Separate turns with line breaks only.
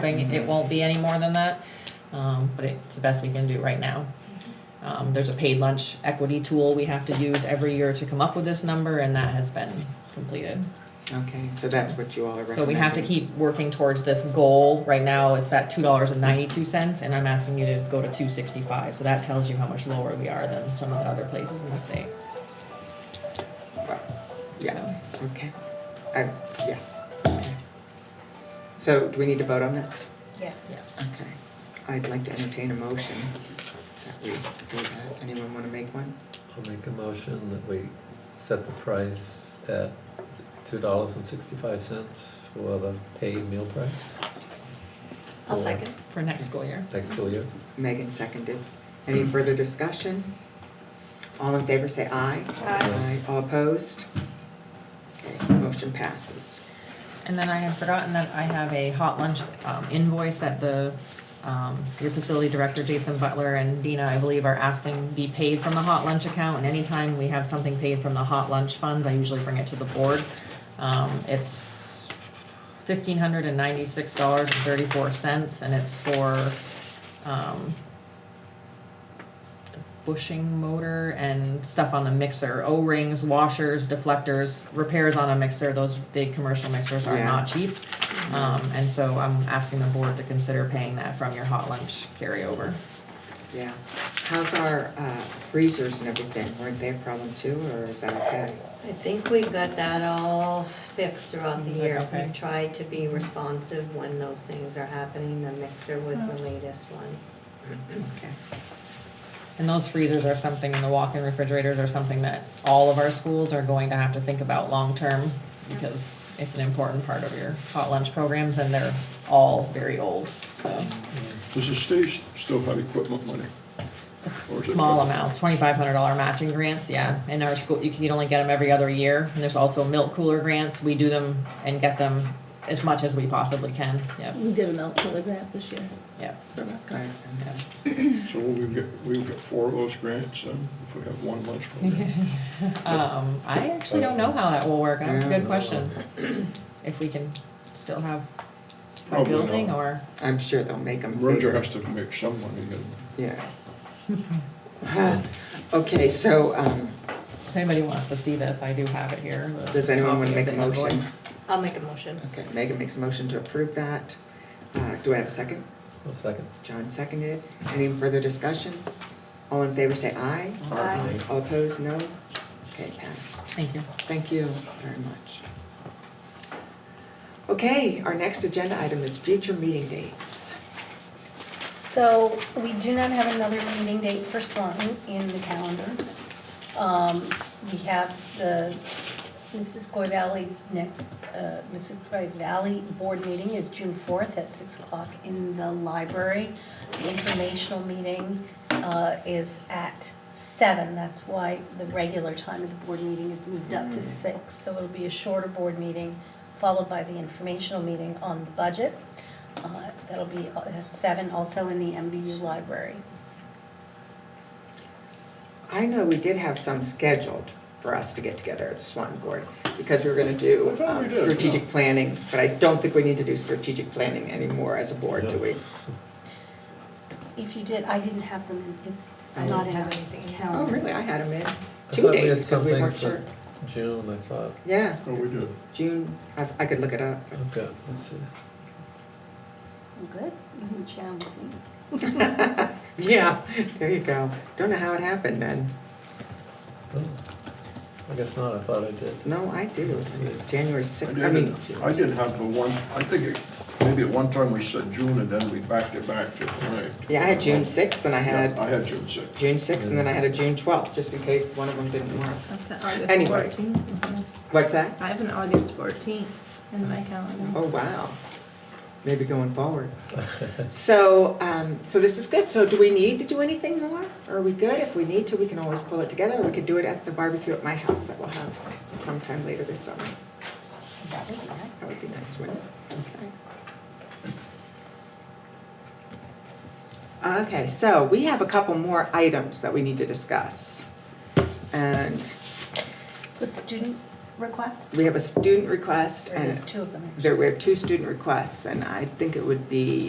having, it won't be any more than that, um, but it's the best we can do right now. Um, there's a paid lunch equity tool we have to use every year to come up with this number, and that has been completed.
Okay, so that's what you all are recommending.
So we have to keep working towards this goal. Right now, it's at two dollars and ninety-two cents, and I'm asking you to go to two sixty-five, so that tells you how much lower we are than some of the other places in the state.
Yeah, okay. I, yeah. okay. So do we need to vote on this?
Yeah.
Yes.
Okay. I'd like to entertain a motion that we do that. Anyone want to make one?
I'll make a motion that we set the price at two dollars and sixty-five cents for the paid meal price.
I'll
for
second.
For next school year.
Next school year.
Megan seconded. Any further discussion? All in favor say aye.
Aye.
All opposed? Okay, motion passes.
And then I had forgotten that I have a hot lunch um, invoice that the, um, your facility director, Jason Butler, and Dina, I believe, are asking be paid from the hot lunch account. And anytime we have something paid from the hot lunch funds, I usually bring it to the board. Um, It's fifteen hundred and ninety-six dollars and thirty-four cents, and it's for um, the bushing motor and stuff on the mixer, O-rings, washers, deflectors, repairs on a mixer, those big commercial mixers are
Yeah.
not cheap. Um, and so I'm asking the board to consider paying that from your hot lunch carryover.
Yeah. How's our uh, freezers and everything? Weren't they a problem too, or is that okay?
I think we've got that all fixed throughout the
Sounds like
year.
okay.
We've tried to be responsive when those things are happening. The mixer was the latest one.
Okay.
And those freezers are something, and the walk-in refrigerators are something that all of our schools are going to have to think about long-term because it's an important part of your hot lunch programs and they're all very old, so.
Does the state still have equipment money? Or is it
Small
fixed?
amounts, twenty-five hundred dollar matching grants, yeah, in our school, you can only get them every other year, and there's also milk cooler grants, we do them and get them as much as we possibly can, yep,
We did a milk cooler grant this year.
yep,
Right,
yep.
So we've got, we've got four of those grants, and if we have one lunch program.
Um, I actually don't know how that will work, that's a
Yeah.
good question, if we can still have this
Probably
building,
not.
or,
I'm sure they'll make them.
Roger has to make some money, and
Yeah. Okay, so, um,
if anybody wants to see this, I do have it here. the
does anyone want
copy
to
of
make a
the invoice.
motion?
I'll make a motion.
Okay, Megan makes a motion to approve that. Uh, do I have a second?
I'll second.
John seconded. Any further discussion? All in favor say aye.
Aye.
All opposed, no? Okay, passed.
Thank you.
Thank you very much. Okay, our next agenda item is future meeting dates.
So we do not have another meeting date for Swanton in the calendar. Um, we have the Mrs. Goy Valley next, uh, Mrs. Goy Valley Board meeting is June fourth at six o'clock in the library. The informational meeting, uh, is at seven, that's why the regular time of the board meeting is moved up to six. So it'll be a shorter board meeting, followed by the informational meeting on the budget. Uh, That'll be at seven, also in the MBU library.
I know we did have some scheduled for us to get together at the Swanton Board, because we were gonna do
I thought we
um,
did, yeah.
strategic planning, but I don't think we need to do strategic planning anymore as a board, do
No.
we?
If you did, I didn't have them, in- it's,
I
it's not
didn't
in our
have anything in
Oh,
calendar.
really, I had them in
I
two
thought had
days, because we
something
weren't
for
sure.
June, I thought.
Yeah,
oh, we did.
June, I, I could look it up.
I've got, let's see.
I'm Good, you can challenge me.
Yeah, there you go. Don't know how it happened then.
Oh, I guess not. I thought I did.
No, I do,
Let's see.
January sixth, I
I
mean,
did, I did have the one, I think it, maybe at one time we said June, and then we backed it back to, right?
yeah, I had June sixth and I had
I had June sixth.
June sixth and then I had a June twelfth, just in case one of them didn't work.
That's an August
Anyway.
fourteenth.
What's that?
I have an August fourteenth in my calendar.
Oh, wow. Maybe going forward. So, um, so this is good. So do we need to do anything more? Are we good? If we need to, we can always pull it together. We could do it at the barbecue at my house that we'll have sometime later this summer.
That would be nice.
That would be nice, wouldn't it? Okay. Okay, so we have a couple more items that we need to discuss. And
The student request?
We have a student request
Or there's
and
two of them. actually?
there were two student requests and I think it would be